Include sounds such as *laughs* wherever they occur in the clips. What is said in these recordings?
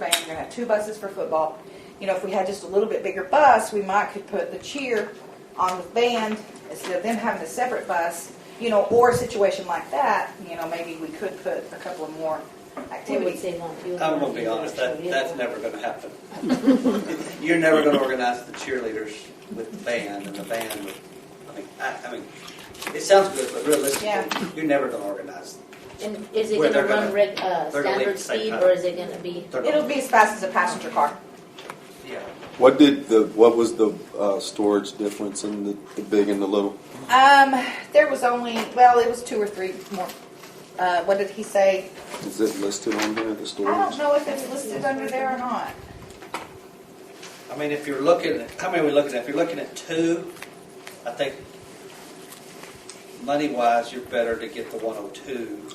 we're gonna have two buses for football. You know, if we had just a little bit bigger bus, we might could put the cheer on the band instead of them having a separate bus, you know, or a situation like that, you know, maybe we could put a couple of more It would activities. seem like you. I'm gonna be honest, that, that's never gonna happen. *laughs* You're never gonna organize the cheerleaders with the band and the band with, I mean, I, I mean, it sounds good, but realistically, Yeah. you're never gonna organize. And is it Where gonna they're run gonna- red, uh, they're gonna leave standard at the same speed time. or is it gonna be? they're gonna- It'll be as fast as a passenger car. Yeah. What did the, what was the uh, storage difference in the, the big and the little? Um, there was only, well, it was two or three more. Uh, what did he say? Is it listed on there, the I storage? don't know if it's listed under there or not. I mean, if you're looking, at how many are we looking at? If you're looking at two, I think money-wise, you're better to get the 102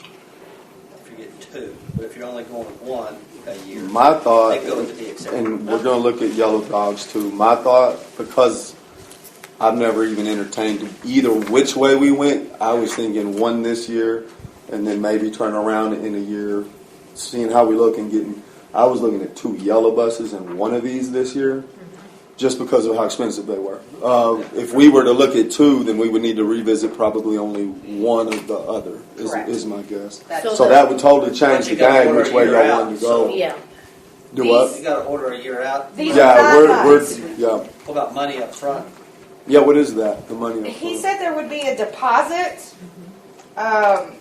if you get two. But if you're only going with one a year. My thought, They go with the exception. and we're gonna look at yellow dogs too. My thought, because I've never even entertained either which way we went, I was thinking one this year and then maybe turn around in a year, seeing how we look and getting, I was looking at two yellow buses and one of these this year, Mm-hmm. just because of how expensive they were. Uh, if we were to look at two, then we would need to revisit probably only one of the other, is, Correct. is my guess. That- So So that would totally But change the you gotta game, order which way a y'all year out, wanted to so- go. Yeah, Do what? You gotta order a year out. These- What Yeah, we're, These we're, yeah, about money up front? yeah, what is that, the money? up He front? said there would be a deposit, um,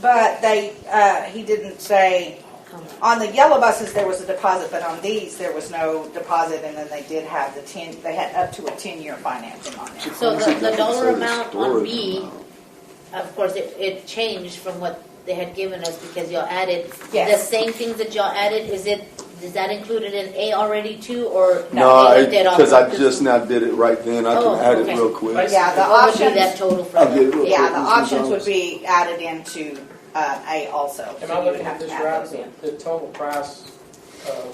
but they, uh, he didn't say, come on. on the yellow buses, there was a deposit, but on these, there was no deposit, and then they did have the ten, they had up to a ten-year financing on it. So the, the dollar Said amount on storage B, amount. of course, it, it changed from what they had given us because y'all added. The Yes. same things that y'all added, is it, is that included in A already too, or? No, they did all because I of this? just now did it right then, I Oh, can add it okay. real quick. Yeah, the What would be options, that total I'll get for? it real quick. yeah, the Mr. options would Jones. be added into, uh, A also. Am so I you looking have at to this add right, those in. the, the total price, um,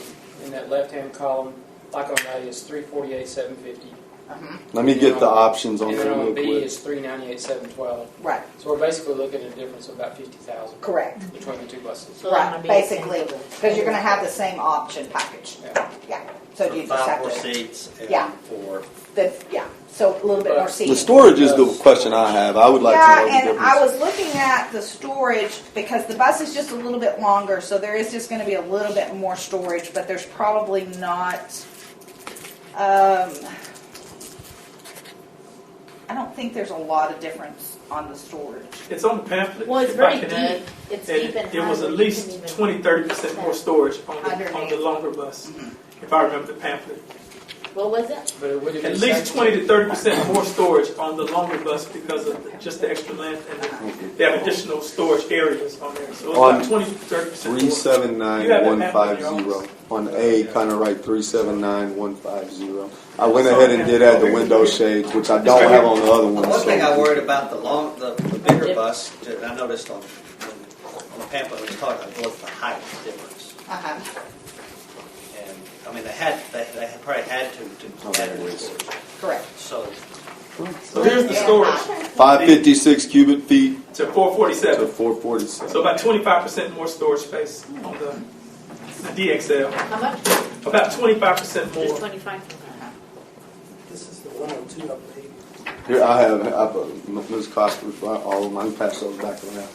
in that left-hand column, like on A is three forty-eight, seven fifty. Mhm, Let me get the options on And there then real on B quick. is three ninety-eight, seven twelve. Right, So we're basically looking at a difference of about fifty thousand correct, between the two buses. So that Right, might be the same basically, total. because you're gonna have the same option package, Yeah. yeah, so you just Five have more to, seats Yeah. and four. the, yeah, so a little bit more The seating. The storage is the question I have, I would like to Yeah, know the and I difference. was looking at the storage because the bus is just a little bit longer, so there is just gonna be a little bit more storage, but there's probably not, um, I don't think there's a lot of difference on the storage. It's on the pamphlet. Well, it's if very I can add, deep, it's and deep and high. It was where you couldn't at least even- twenty, thirty percent more storage on the, on Underneath. the longer bus, if I remember the pamphlet. What was it? But it would have been. At least safe- twenty to thirty percent more storage on the longer bus because of the- just the extra length and the- they have additional storage areas on there. So it's On like twenty to thirty percent Three more. seven nine You have one that five pamphlet in your zero, office? on A, kinda right, three seven nine one five zero. I went ahead and did add the window shades, which I don't have on the other one. One so- thing I worried about the long, the, the bigger bus, that I noticed on, on the pamphlet, it was talking about was the height difference. Uh-huh. And, I mean, they had, they, they had probably had to, to add more storage. Correct. So, So here's the storage Five fifty-six cubic feet to four to forty-seven. four forty-seven. So about twenty-five percent more storage space on the, the DXL. How much? About twenty-five percent Just more. twenty-five? This is the 102, I believe. Here, I have, I put Ms. Costa, all of mine, pass those back around.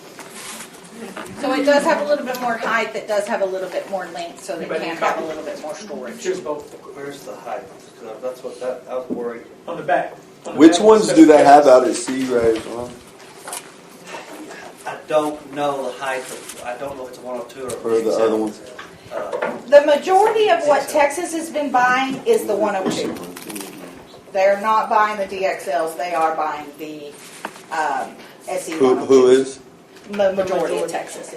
So it does have a little bit more height, that does have a little bit more length, so they Anybody can need have a copy? little bit more storage. Here's both where's the height? 'Cause that's what, that, I was worried. on the back. On the Which back, ones do they have specifications. out at Seagraves, huh? I don't know the height of, I don't know if it's a 102 or. Or the other one. Uh, The majority of what Texas has been buying is the 102. They're not buying the DXLs, they are buying the um, SE 102s. Who, who is? The majority of Texas.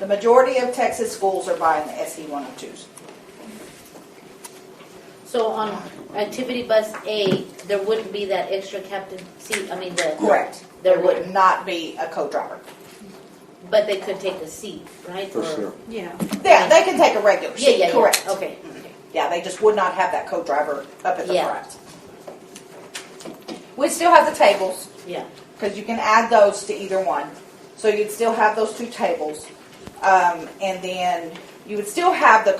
The majority of Texas schools are buying the E SE 102s. So on activity bus A, there wouldn't be that extra captain seat, I mean, the, Correct. There there wouldn't. would not be a co-driver. But they could take a seat, right? For Or- sure. Yeah. Yeah, they can take a regular Yeah, yeah, seat, yeah. correct. Okay. Yeah, they just would not have that co-driver up at the Yeah. front. We still have the tables, Yeah. because you can add those to either one. So you'd still have those two tables. Um, and then you would still have the